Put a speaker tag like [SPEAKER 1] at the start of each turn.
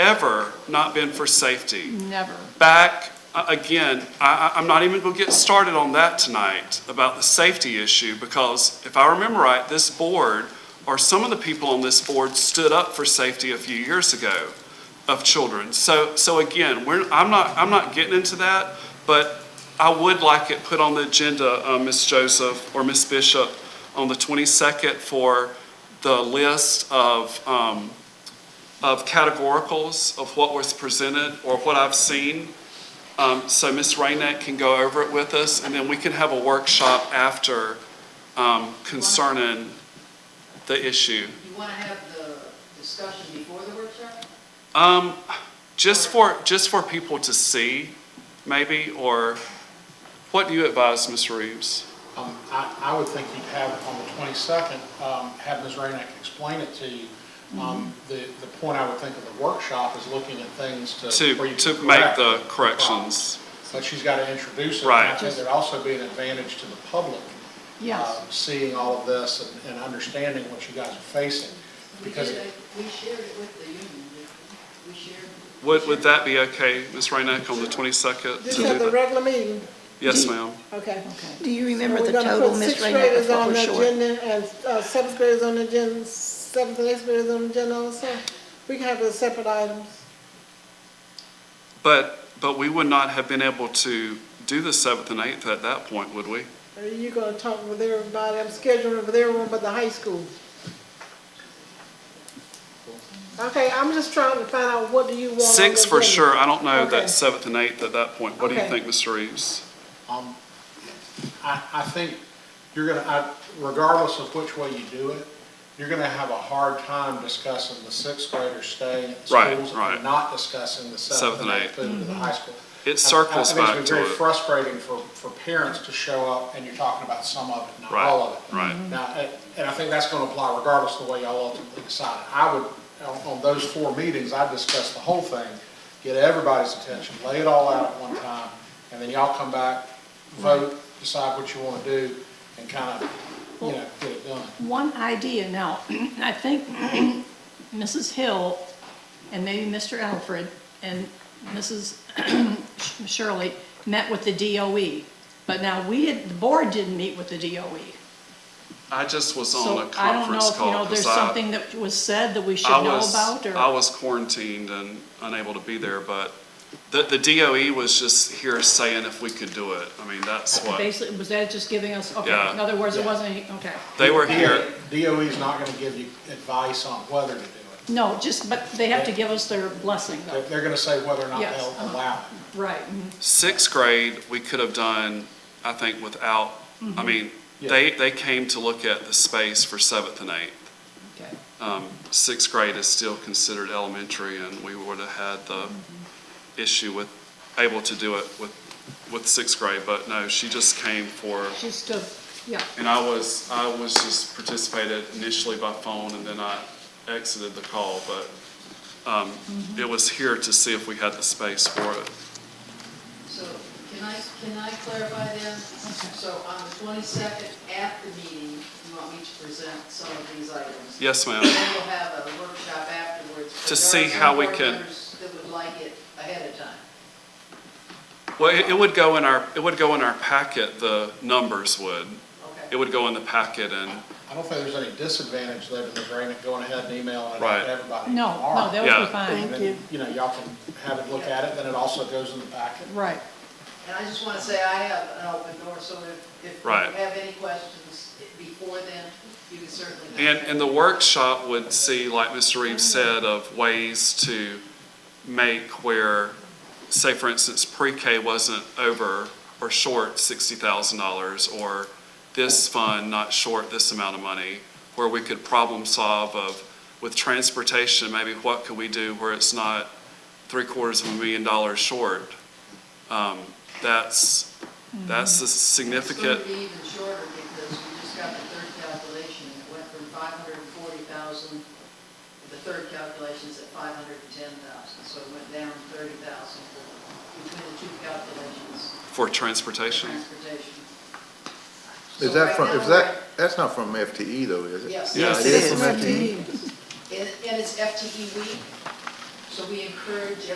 [SPEAKER 1] never not been for safety.
[SPEAKER 2] Never.
[SPEAKER 1] Back, uh, again, I, I- I'm not even going to get started on that tonight about the safety issue because if I remember right, this board, or some of the people on this board stood up for safety a few years ago of children. So, so again, we're, I'm not, I'm not getting into that, but I would like it put on the agenda, uh, Ms. Joseph or Ms. Bishop, on the 22nd for the list of, um, of categoricals of what was presented or what I've seen. Um, so Ms. Rainette can go over it with us, and then we can have a workshop after, um, concerning the issue.
[SPEAKER 3] You want to have the discussion before the workshop?
[SPEAKER 1] Um, just for, just for people to see, maybe, or what do you advise, Ms. Reeves?
[SPEAKER 4] Um, I, I would think you'd have on the 22nd, um, have Ms. Rainick explain it to you. Um, The, the point I would think of the workshop is looking at things to. where
[SPEAKER 1] To,
[SPEAKER 4] Uh, you
[SPEAKER 1] to
[SPEAKER 4] can
[SPEAKER 1] make
[SPEAKER 4] correct
[SPEAKER 1] the
[SPEAKER 4] problem.
[SPEAKER 1] corrections.
[SPEAKER 4] But she's got to introduce it.
[SPEAKER 1] Right.
[SPEAKER 4] And I think there'd also be an advantage to the public.
[SPEAKER 2] Yes.
[SPEAKER 4] um, Seeing all of this and, and understanding what you guys are facing.
[SPEAKER 3] We
[SPEAKER 4] Because
[SPEAKER 3] did it- We shared it with the union, didn't we? We shared.
[SPEAKER 1] Would, would that be okay, Ms. Rainick, on the 22nd? to
[SPEAKER 5] Just
[SPEAKER 1] do
[SPEAKER 5] have the
[SPEAKER 1] that?
[SPEAKER 5] regular meeting,
[SPEAKER 1] Yes, ma'am.
[SPEAKER 5] okay.
[SPEAKER 6] Do you remember
[SPEAKER 5] Um, So
[SPEAKER 6] the total,
[SPEAKER 5] We're
[SPEAKER 6] Miss
[SPEAKER 5] gonna
[SPEAKER 6] Rainier,
[SPEAKER 5] put sixth graders
[SPEAKER 6] before
[SPEAKER 5] on
[SPEAKER 6] we're
[SPEAKER 5] the
[SPEAKER 6] short?
[SPEAKER 5] agenda and uh, seventh graders on the agenda, seventh and eighth graders on the agenda also. We can have those separate items.
[SPEAKER 1] But, but we would not have been able to do the seventh and eighth at that point, would we?
[SPEAKER 5] Are Uh, you gonna talk with everybody, I'm scheduling with everyone but the high school. Okay, I'm just trying to find out what do you want on the
[SPEAKER 1] Six for
[SPEAKER 5] agenda.
[SPEAKER 1] sure, I don't know
[SPEAKER 5] Okay.
[SPEAKER 1] that seventh and eighth at that point. What do you
[SPEAKER 5] Okay.
[SPEAKER 1] think, Mr. Reeves?
[SPEAKER 4] Um, I, I think you're gonna, I- regardless of which way you do it, you're gonna have a hard time discussing the sixth graders staying at
[SPEAKER 1] Right,
[SPEAKER 4] schools
[SPEAKER 1] right.
[SPEAKER 4] and not discussing the seventh and eighth moving to the high school.
[SPEAKER 1] It circles
[SPEAKER 4] I- I- I
[SPEAKER 1] back
[SPEAKER 4] think it's
[SPEAKER 1] to
[SPEAKER 4] been
[SPEAKER 1] it.
[SPEAKER 4] very frustrating for, for parents to show up and you're talking about some of it, not
[SPEAKER 1] Right,
[SPEAKER 4] all of it.
[SPEAKER 1] right.
[SPEAKER 2] Mm-hmm.
[SPEAKER 4] Now, and- and I think that's gonna apply regardless of the way y'all ultimately decide. I would, on, on those four meetings, I'd discuss the whole thing, get everybody's attention, lay it all out at one time, and then y'all come back, vote, decide what you wanna do, and kind of, you know, get it done.
[SPEAKER 2] One idea now, I think Mrs. Hill and maybe Mr. Alfred and Mrs. Shirley met with the DOE. But now we, didn't- the board didn't meet with the DOE.
[SPEAKER 1] I just was
[SPEAKER 2] So
[SPEAKER 1] on a
[SPEAKER 2] I don't know
[SPEAKER 1] conference
[SPEAKER 2] if, you know,
[SPEAKER 1] call because
[SPEAKER 2] there's
[SPEAKER 1] I,
[SPEAKER 2] something that was said that we should
[SPEAKER 1] I
[SPEAKER 2] know
[SPEAKER 1] was,
[SPEAKER 2] about
[SPEAKER 1] I
[SPEAKER 2] or.
[SPEAKER 1] was quarantined and unable to be there, but the, the DOE was just here saying if we could do it. I mean, that's what,
[SPEAKER 2] Basically, was that just giving us, okay,
[SPEAKER 1] Yeah.
[SPEAKER 2] in other words, it wasn't, any- okay.
[SPEAKER 1] they were here.
[SPEAKER 4] DOE's E not gonna give you advice on whether to do it.
[SPEAKER 2] No, just, but they have to give us their blessing
[SPEAKER 4] They're,
[SPEAKER 2] though,
[SPEAKER 4] they're gonna say whether or not
[SPEAKER 2] Yes,
[SPEAKER 4] they'll
[SPEAKER 2] uh-huh.
[SPEAKER 4] allow it.
[SPEAKER 2] right. mhm.
[SPEAKER 1] Sixth grade, we could have done, I think, without,
[SPEAKER 2] Mm-hmm.
[SPEAKER 1] I mean, they, they came to look at the space for seventh and eighth.
[SPEAKER 2] Okay.
[SPEAKER 1] um, sixth grade is still considered elementary, and we would have had the issue with, able to do it with, with sixth grade, but no, she just came for,
[SPEAKER 2] Just to, yeah,
[SPEAKER 1] and I was, I was just participated initially by phone, and then I exited the call, but um, it was here to see if we had the space for it.
[SPEAKER 3] So can I, can I clarify then? So on the 22nd, at the meeting, you want me to present some of these items?
[SPEAKER 1] Yes, ma'am.
[SPEAKER 3] Then we'll have a workshop afterwards. but
[SPEAKER 1] To
[SPEAKER 3] there are
[SPEAKER 1] see
[SPEAKER 3] some
[SPEAKER 1] how we
[SPEAKER 3] board
[SPEAKER 1] can-
[SPEAKER 3] members That would like it ahead of time.
[SPEAKER 1] Well, it it would go in our, it would go in our packet, the numbers would. It
[SPEAKER 3] Okay.
[SPEAKER 1] would go in the packet, and
[SPEAKER 4] I don't think there's any disadvantage there to the Rainick going ahead and emailing it
[SPEAKER 1] Right.
[SPEAKER 4] to everybody
[SPEAKER 2] no,
[SPEAKER 4] tomorrow.
[SPEAKER 2] no, that would
[SPEAKER 1] Yeah.
[SPEAKER 2] be fine.
[SPEAKER 4] And then,
[SPEAKER 5] Thank
[SPEAKER 4] You know, y'all can have it look at it, then it also goes in the packet.
[SPEAKER 2] Right,
[SPEAKER 3] And I just want to say I have an open door, so if, if you
[SPEAKER 1] Right.
[SPEAKER 3] have any questions before then, you can certainly.
[SPEAKER 1] And, and the workshop would see, like Mr. Reeves said, of ways to make where, say for instance, pre-K wasn't over or short sixty thousand dollars, or this fund not short this amount of money, where we could problem solve of, with transportation, maybe what could we do where it's not three quarters of a million dollars short? Um, that's, that's a
[SPEAKER 3] It's going
[SPEAKER 1] significant,
[SPEAKER 3] to be even shorter because we just got the third calculation. and It went from 540,000, the third calculation's at 510,000, so it went down 30,000 between the two calculations
[SPEAKER 1] for
[SPEAKER 3] for
[SPEAKER 1] transportation.
[SPEAKER 3] transportation.
[SPEAKER 7] Is
[SPEAKER 3] So
[SPEAKER 7] that
[SPEAKER 3] right
[SPEAKER 7] from,
[SPEAKER 3] now
[SPEAKER 7] is that, that's not from FTE though, is it?
[SPEAKER 3] Yes.
[SPEAKER 1] Yes,
[SPEAKER 7] It
[SPEAKER 6] it
[SPEAKER 7] is
[SPEAKER 6] is.
[SPEAKER 7] from FTE.
[SPEAKER 3] we're at- And and it's FTE E week, so So we encourage